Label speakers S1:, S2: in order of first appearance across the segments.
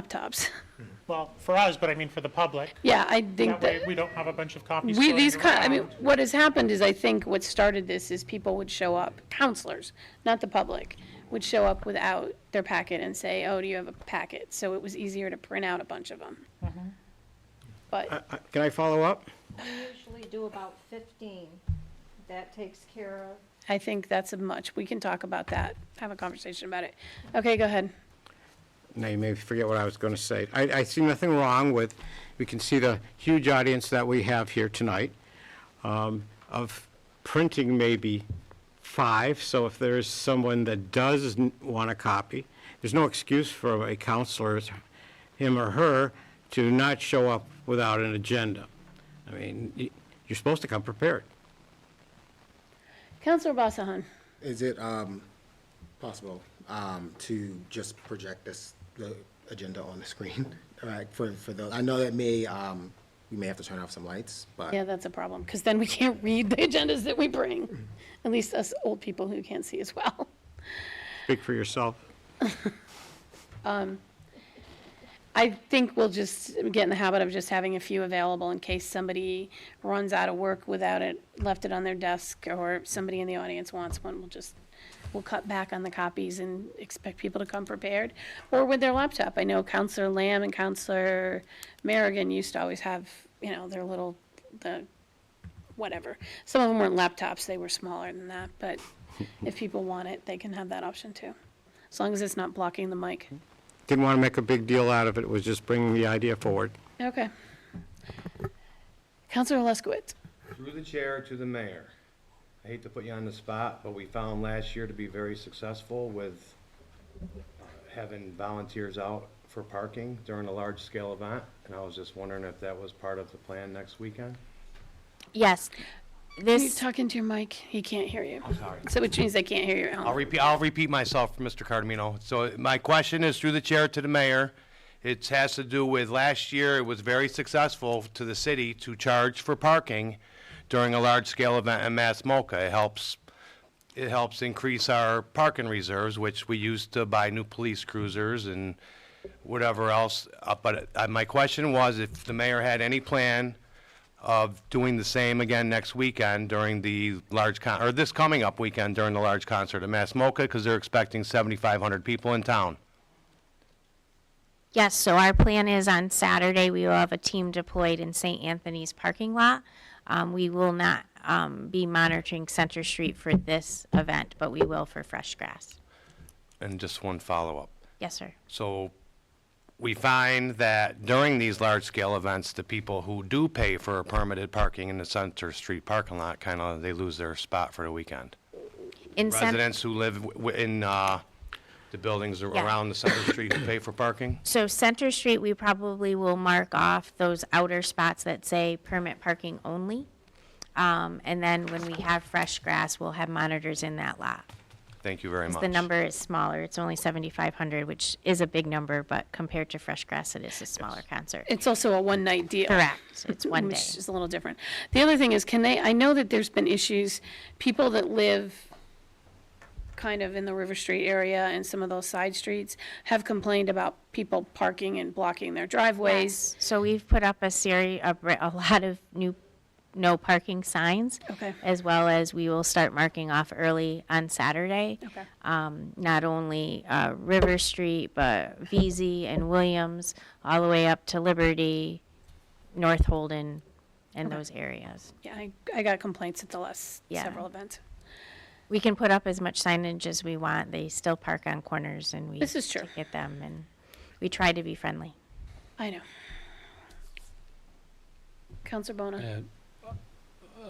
S1: laptops.
S2: Well, for us, but I mean for the public.
S1: Yeah, I think
S2: That way,
S1: that,
S2: we don't have a bunch of copies.
S1: we,
S2: floating
S1: these, co- I mean,
S2: around.
S1: what has happened is, I think what started this is people would show up, counselors, not the public, would show up without their packet and say, oh, do you have a packet? So it was easier to print out a bunch of them.
S2: Mm-hmm.
S1: But,
S3: Uh, Can I follow up?
S4: usually do about 15. That takes care of
S1: I think that's a much, we can talk about that, have a conversation about it. Okay, go ahead.
S3: Now, you may forget what I was going to say. I, I see nothing wrong with, we can see the huge audience that we have here tonight, um, of printing maybe five, so if there's someone that does n- want a copy, there's no excuse for a counselor, him or her, to not show up without an agenda. I mean, y- you're supposed to come prepared.
S1: Counselor Basahan,
S5: Is it um, possible um, to just project this, the agenda on the screen? All right, for, for those, I know that may, um, we may have to turn off some lights, but
S1: yeah, that's a problem, because then we can't read the agendas that we bring, at least us old people who can't see as well.
S3: Speak for yourself.
S1: I think we'll just get in the habit of just having a few available in case somebody runs out of work without it, left it on their desk, or somebody in the audience wants one, we'll just, we'll cut back on the copies and expect people to come prepared, or with their laptop. I know Counselor Lamb and Counselor Merrigan used to always have, you know, their little, the, whatever. Some of them weren't laptops, they were smaller than that, but if people want it, they can have that option too, as long as it's not blocking the mic.
S3: Didn't want to make a big deal out of it, was just bringing the idea forward.
S1: Okay. Counselor Luskowitz.
S6: Through the chair to the mayor. I hate to put you on the spot, but we found last year to be very successful with uh, having volunteers out for parking during a large-scale event, and I was just wondering if that was part of the plan next weekend?
S7: Yes.
S1: Can you
S7: This,
S1: talk into your mic? He can't hear you.
S6: sorry.
S1: So which means they can't hear you at
S6: I'll
S1: home.
S6: repeat, I'll repeat myself, Mr. Cardamino. So my question is through the chair to the mayor. It has to do with last year, it was very successful to the city to charge for parking during a large-scale event in Massmoka. It helps, it helps increase our parking reserves, which we used to buy new police cruisers and whatever else. Uh, But uh, my question was if the mayor had any plan of doing the same again next weekend during the large con, or this coming up weekend during the large concert at Massmoka, because they're expecting 7,500 people in town.
S7: yes, so our plan is on Saturday, we will have a team deployed in St. Anthony's parking lot. Um, we will not, um, be monitoring Center Street for this event, but we will for fresh grass.
S6: And just one follow-up.
S7: Yes, sir.
S6: So we find that during these large-scale events, the people who do pay for a permitted parking in the Center Street parking lot, kind of, they lose their spot for the weekend.
S7: In Cen-
S6: Residents who live w- w- in uh, the buildings
S7: Yeah.
S6: around the Center Street who pay for parking?
S7: So Center Street, we probably will mark off those outer spots that say permit parking only. Um, and then when we have fresh grass, we'll have monitors in that lot.
S6: Thank you very much.
S7: The number is smaller, it's only seventy-five hundred, which is a big number, but compared to fresh grass, it is a smaller concert.
S1: It's also a one-night deal.
S7: Correct, it's one day.
S1: Which is a little different. The other thing is, can they, I know that there's been issues, people that live kind of in the River Street area and some of those side streets have complained about people parking and blocking their driveways.
S7: So we've put up a series, a, a lot of new no parking signs.
S1: Okay.
S7: As well as we will start marking off early on Saturday.
S1: Okay.
S7: Um, not only, uh, River Street, but VZ and Williams, all the way up to Liberty, North Holden, and those areas.
S1: Yeah, I, I got complaints at the last
S7: Yeah.
S1: several events.
S7: We can put up as much signage as we want, they still park on corners and we.
S1: This is true.
S7: Get them and we try to be friendly.
S1: I know. Counselor
S8: Uh,
S1: Bona,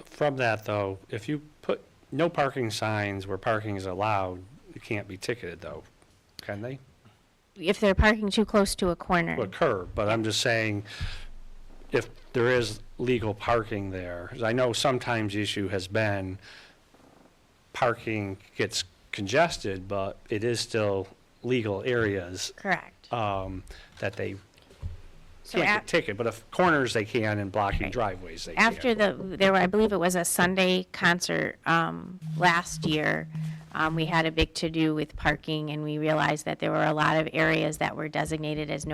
S8: From that, though, if you put no parking signs where parking is allowed, you can't be ticketed, though, can they?
S7: If they're parking too close to a corner.
S8: To a curb, but I'm just saying, if there is legal parking there, 'cause I know sometimes the issue has been parking gets congested, but it is still legal areas
S7: Correct.
S8: um, that they
S7: So
S8: can't
S7: a-
S8: get ticketed, but if corners they can and blocking driveways they can.
S7: after the, there were, I believe it was a Sunday concert, um, last year, um, we had a big to-do with parking, and we realized that there were a lot of areas that were designated as no